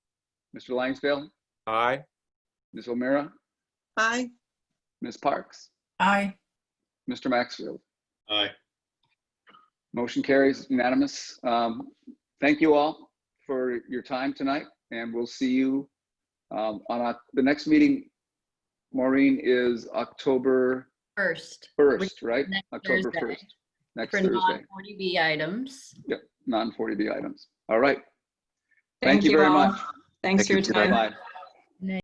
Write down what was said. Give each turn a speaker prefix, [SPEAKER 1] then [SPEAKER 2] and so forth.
[SPEAKER 1] Mr. Langsdale,
[SPEAKER 2] Aye.
[SPEAKER 1] Ms. O'Meara,
[SPEAKER 3] Aye.
[SPEAKER 1] Ms. Parks,
[SPEAKER 4] Aye.
[SPEAKER 1] Mr. Maxfield.
[SPEAKER 5] Aye.
[SPEAKER 1] Motion carries unanimous. Um, Thank you all for your time tonight, and we'll see you um, on our- the next meeting. Maureen is October
[SPEAKER 6] First.
[SPEAKER 1] 1st, right?
[SPEAKER 6] Next
[SPEAKER 1] October
[SPEAKER 6] Thursday
[SPEAKER 1] 1st, next
[SPEAKER 6] For
[SPEAKER 1] Thursday,
[SPEAKER 6] non-40B items.
[SPEAKER 1] non-40B items. All right. Thank you very
[SPEAKER 3] all.
[SPEAKER 1] much.
[SPEAKER 3] Thanks for your time.
[SPEAKER 1] Bye-bye.